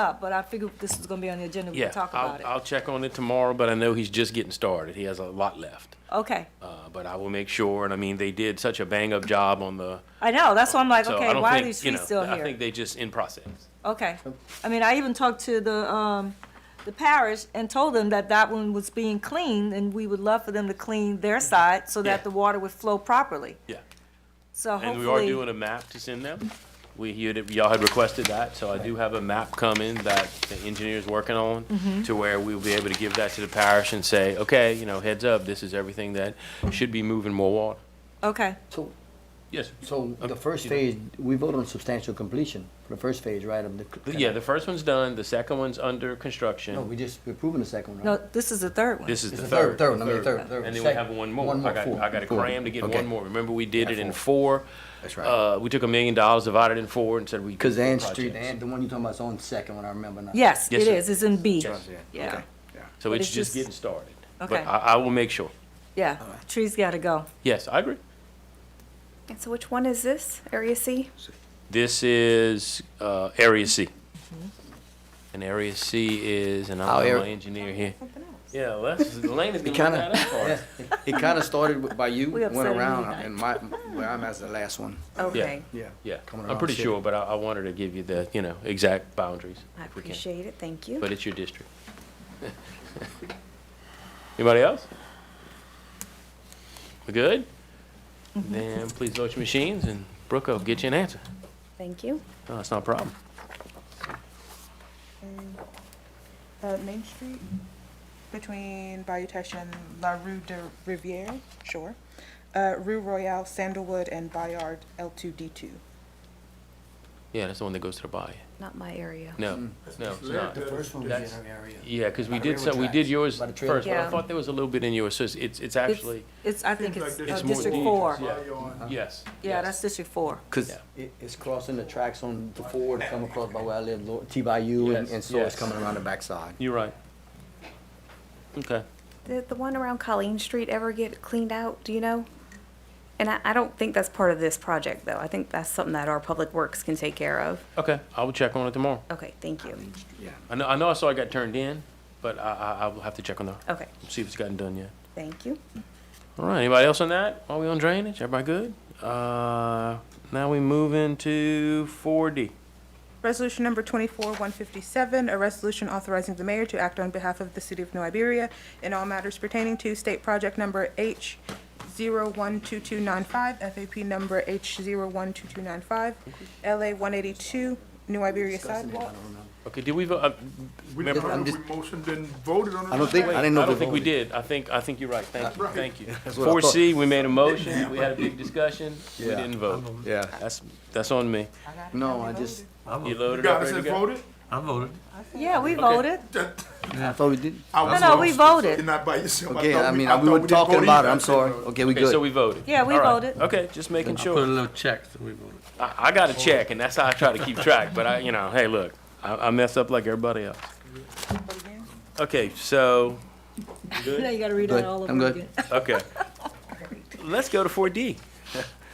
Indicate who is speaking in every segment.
Speaker 1: up, but I figured this was gonna be on the agenda, we
Speaker 2: Yeah,
Speaker 1: could talk
Speaker 2: I'll-
Speaker 1: about it.
Speaker 2: I'll check on it tomorrow, but I know he's just getting started. He has a lot left.
Speaker 1: Okay,
Speaker 2: Uh, But I will make sure, and I mean, they did such a bang-up job on the,
Speaker 1: I know, that's why I'm like,
Speaker 2: so
Speaker 1: okay,
Speaker 2: I don't
Speaker 1: why are these
Speaker 2: think, you
Speaker 1: trees
Speaker 2: know,
Speaker 1: still
Speaker 2: I
Speaker 1: here?
Speaker 2: think they just in process.
Speaker 1: Okay, I mean, I even talked to the, um, the parish and told them that that one was being cleaned, and we would love for them to clean their side so that
Speaker 2: Mm-hmm. Yeah.
Speaker 1: the water would flow properly,
Speaker 2: Yeah.
Speaker 1: so
Speaker 2: And we are
Speaker 1: hopefully.
Speaker 2: doing a map to send them. We, you had- y'all had requested that, so I do have a map coming that the engineer's working on
Speaker 1: Mm-hmm.
Speaker 2: to where we'll be able to give that to the parish and say, okay, you know, heads up, this is everything that should be moving more water.
Speaker 1: Okay,
Speaker 3: So,
Speaker 2: Yes.
Speaker 3: so
Speaker 2: Um,
Speaker 3: the first
Speaker 2: you know.
Speaker 3: phase, we voted on substantial completion for the first phase, right? of the c-
Speaker 2: Yeah, the first one's done, the second one's under construction.
Speaker 3: No, we just, we're approving the second one,
Speaker 1: no,
Speaker 3: right?
Speaker 1: this is the third one.
Speaker 2: This is
Speaker 3: It's
Speaker 2: the
Speaker 3: the
Speaker 2: third.
Speaker 3: third- third
Speaker 2: the
Speaker 3: one, I mean, third- third,
Speaker 2: And then we
Speaker 3: second-
Speaker 2: have one more.
Speaker 3: one more,
Speaker 2: I got,
Speaker 3: four,
Speaker 2: I got a
Speaker 3: four.
Speaker 2: cram to get
Speaker 3: Okay.
Speaker 2: one more. Remember, we did
Speaker 3: Yeah,
Speaker 2: it in four.
Speaker 3: That's right.
Speaker 2: Uh, we took a million dollars, divided it in four, and said we.
Speaker 3: Cause the Ann
Speaker 2: projects.
Speaker 3: Street, the Ann- the one you're talking about is on second one, I remember now.
Speaker 1: Yes,
Speaker 2: Yes,
Speaker 1: it
Speaker 2: sir.
Speaker 1: is, it's in B,
Speaker 2: Yes.
Speaker 1: yeah,
Speaker 2: So
Speaker 1: but
Speaker 2: it's
Speaker 1: it's
Speaker 2: just
Speaker 1: just-
Speaker 2: getting started.
Speaker 1: Okay.
Speaker 2: But uh, I, I will make sure.
Speaker 1: yeah, trees gotta go.
Speaker 2: Yes, I agree.
Speaker 4: And so which one is this? Area C?
Speaker 2: This is, uh, Area C.
Speaker 1: Mm-hmm.
Speaker 2: And Area C is, and
Speaker 3: Our
Speaker 2: I'm
Speaker 3: area-
Speaker 2: my engineer here.
Speaker 4: Something else.
Speaker 2: Yeah, Les, Elaine is
Speaker 5: We
Speaker 2: gonna
Speaker 5: kinda-
Speaker 2: look that up for us.
Speaker 5: It kind of started with- by you,
Speaker 1: We upset
Speaker 5: went
Speaker 1: him
Speaker 5: around,
Speaker 1: tonight.
Speaker 5: and my, where I'm as the last one.
Speaker 1: Okay,
Speaker 5: Yeah.
Speaker 2: Yeah,
Speaker 3: Coming
Speaker 2: I'm
Speaker 3: around
Speaker 2: pretty
Speaker 3: city.
Speaker 2: sure, but I, I wanted to give you the, you know, exact boundaries.
Speaker 4: I
Speaker 2: if we can.
Speaker 4: appreciate it, thank you.
Speaker 2: but it's your district. Anybody else? We good? Then please vote your machines and Brooke will get you an answer.
Speaker 4: Thank you.
Speaker 2: No, it's not a problem.
Speaker 6: Uh, Main Street between Bayou Teche and La Rue de Riviere, sure. Uh, Rue Royale, Sandalwood, and Bayard L2D2.
Speaker 2: Yeah, that's the one that goes to the Hmm. buy.
Speaker 4: Not my area.
Speaker 2: No, no, it's not.
Speaker 3: The first one
Speaker 2: That's-
Speaker 3: was in our area.
Speaker 2: Yeah, because we
Speaker 3: By the
Speaker 2: did
Speaker 3: railroad
Speaker 2: some, we did
Speaker 3: tracks,
Speaker 2: yours
Speaker 3: by the trailer
Speaker 2: first, but I
Speaker 4: park.
Speaker 2: thought there was a little bit in yours, so it's, it's it's
Speaker 1: it's,
Speaker 2: actually,
Speaker 1: it's, I think it's
Speaker 2: it's
Speaker 1: uh,
Speaker 2: more
Speaker 1: District
Speaker 2: dangerous,
Speaker 1: Four,
Speaker 2: yeah. yes.
Speaker 1: yeah,
Speaker 2: yes.
Speaker 1: that's District Four.
Speaker 3: Cause
Speaker 2: Yeah.
Speaker 3: it, it's crossing the tracks on the four to come across by where I live, Lord- T-by-U and,
Speaker 2: Yes,
Speaker 3: and so it's
Speaker 2: yes.
Speaker 3: coming around the backside.
Speaker 2: You're right. Okay.
Speaker 4: Did the one around Colleen Street ever get cleaned out, do you know? And I, I don't think that's part of this project, though. I think that's something that our public works can take care of.
Speaker 2: Okay, I will check on it tomorrow.
Speaker 4: Okay, thank you.
Speaker 3: Yeah.
Speaker 2: I know, I know I saw it got turned in, but I, I, I will have to check on the,
Speaker 4: Okay,
Speaker 2: see if it's gotten done yet.
Speaker 4: thank you.
Speaker 2: All right, anybody else on that? Are we on drainage? Everybody good? Uh, now we move into four D.
Speaker 6: Resolution number 24-157, a resolution authorizing the mayor to act on behalf of the city of New Iberia in all matters pertaining to state project number H012295, FAP number H012295, LA 182, New Iberia sidewalk.
Speaker 2: Okay, did we vote? uh,
Speaker 7: We
Speaker 2: Remember-
Speaker 7: did that,
Speaker 3: I'm
Speaker 7: we
Speaker 3: just-
Speaker 7: motioned and voted on it.
Speaker 5: I don't think,
Speaker 2: wait,
Speaker 5: I didn't know.
Speaker 2: I
Speaker 5: if
Speaker 2: don't think we
Speaker 5: voted.
Speaker 2: did. I think, I think you're right. Thank you,
Speaker 7: Right.
Speaker 2: thank you.
Speaker 5: That's what I
Speaker 2: Four C, we made a motion, we had a big discussion, we
Speaker 5: Yeah.
Speaker 2: didn't vote.
Speaker 5: Yeah.
Speaker 2: That's, that's on me.
Speaker 3: No, I just,
Speaker 2: You
Speaker 7: You
Speaker 2: loaded up,
Speaker 7: guys
Speaker 2: ready to
Speaker 7: have
Speaker 2: go?
Speaker 7: voted?
Speaker 1: Yeah, we voted,
Speaker 3: I thought we did.
Speaker 7: I
Speaker 1: no,
Speaker 7: was
Speaker 1: no, we
Speaker 7: lost. You're
Speaker 1: voted,
Speaker 7: not by yourself.
Speaker 5: Okay,
Speaker 7: thought
Speaker 5: I mean, uh,
Speaker 7: I
Speaker 5: we
Speaker 7: thought
Speaker 5: were
Speaker 7: didn't
Speaker 5: talking
Speaker 7: vote
Speaker 5: about it,
Speaker 7: either.
Speaker 5: I'm sorry. Okay, we
Speaker 2: Okay, so
Speaker 5: good.
Speaker 2: we voted.
Speaker 1: yeah, we
Speaker 2: All right.
Speaker 1: voted.
Speaker 2: Okay, just making
Speaker 8: Put a
Speaker 2: sure.
Speaker 8: little check, so we voted.
Speaker 2: I, I got a check, and that's how I try to keep track, but I, you know, hey, look, I, I mess up like everybody else. Okay, so,
Speaker 1: Now you gotta read
Speaker 3: Good.
Speaker 1: that all
Speaker 3: I'm
Speaker 1: over
Speaker 3: good.
Speaker 1: again.
Speaker 2: okay. Let's go to four D.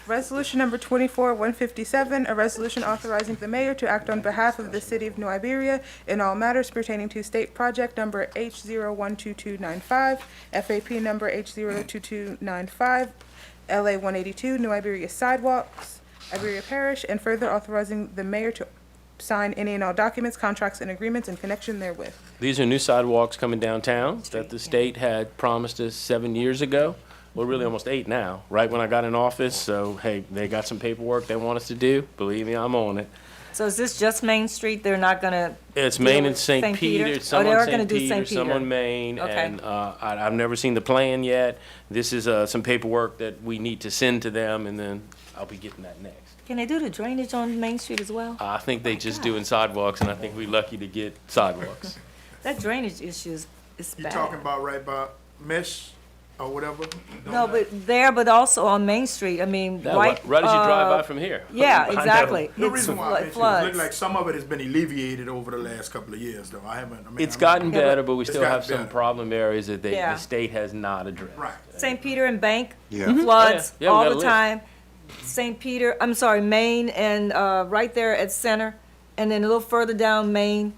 Speaker 6: Resolution number twenty-four one fifty-seven, a resolution authorizing the mayor to act on behalf of the city of New Iberia in all matters pertaining to state project number H zero one two two nine five, FAP number H zero two two nine five, LA one eighty-two, New Iberia sidewalks, Iberia Parish, and further authorizing the mayor to sign any and all documents, contracts, and agreements in connection therewith.
Speaker 2: These are new sidewalks coming downtown that the state had promised us seven years ago. Well, really almost eight now, right when I got in office. So, hey, they got some paperwork they want us to do. Believe me, I'm on it.
Speaker 1: So is this just Main Street, they're not gonna,
Speaker 2: It's
Speaker 1: Deal
Speaker 2: Main
Speaker 1: with
Speaker 2: and St.
Speaker 1: St. Peter?
Speaker 2: Peter,
Speaker 1: Oh,
Speaker 2: some
Speaker 1: they
Speaker 2: on
Speaker 1: are gonna
Speaker 2: St.
Speaker 1: do
Speaker 2: Peter,
Speaker 1: St.
Speaker 2: some
Speaker 1: Peter.
Speaker 2: on Main.
Speaker 1: Okay.
Speaker 2: And uh, I- I've never seen the plan yet. This is uh, some paperwork that we need to send to them, and then I'll be getting that next.
Speaker 1: can they do the drainage on Main Street as well?
Speaker 2: I think they just doing sidewalks, and I think we lucky to get sidewalks.
Speaker 1: That drainage issue is, is
Speaker 7: You talking
Speaker 1: bad.
Speaker 7: about right by mesh or whatever?
Speaker 1: No, but there, but also on Main Street, I mean,
Speaker 2: That
Speaker 1: right.
Speaker 2: wa- Right as you drive
Speaker 1: uh,
Speaker 2: by from here.
Speaker 1: Yeah,
Speaker 2: I know.
Speaker 1: exactly.
Speaker 7: The
Speaker 1: It's
Speaker 7: reason why I
Speaker 1: flo-
Speaker 7: mentioned, it looked
Speaker 1: floods.
Speaker 7: like some of it has been alleviated over the last couple of years, though. I haven't, I mean.
Speaker 2: It's
Speaker 7: I'm-
Speaker 2: gotten
Speaker 1: Yeah, but-
Speaker 2: better, but we
Speaker 7: It's
Speaker 2: still
Speaker 7: gotten
Speaker 2: have some
Speaker 7: better.
Speaker 2: problem areas that they,
Speaker 1: Yeah.
Speaker 2: the state has not addressed.
Speaker 7: Right.
Speaker 1: St. Peter and Bank
Speaker 5: Yeah. Mhm.
Speaker 1: floods
Speaker 2: Oh, yeah. Yeah, we got
Speaker 1: all
Speaker 2: a
Speaker 1: the
Speaker 2: list.
Speaker 1: time. St. Peter, I'm sorry, Maine and uh, right there at Center, and then a little further down Maine,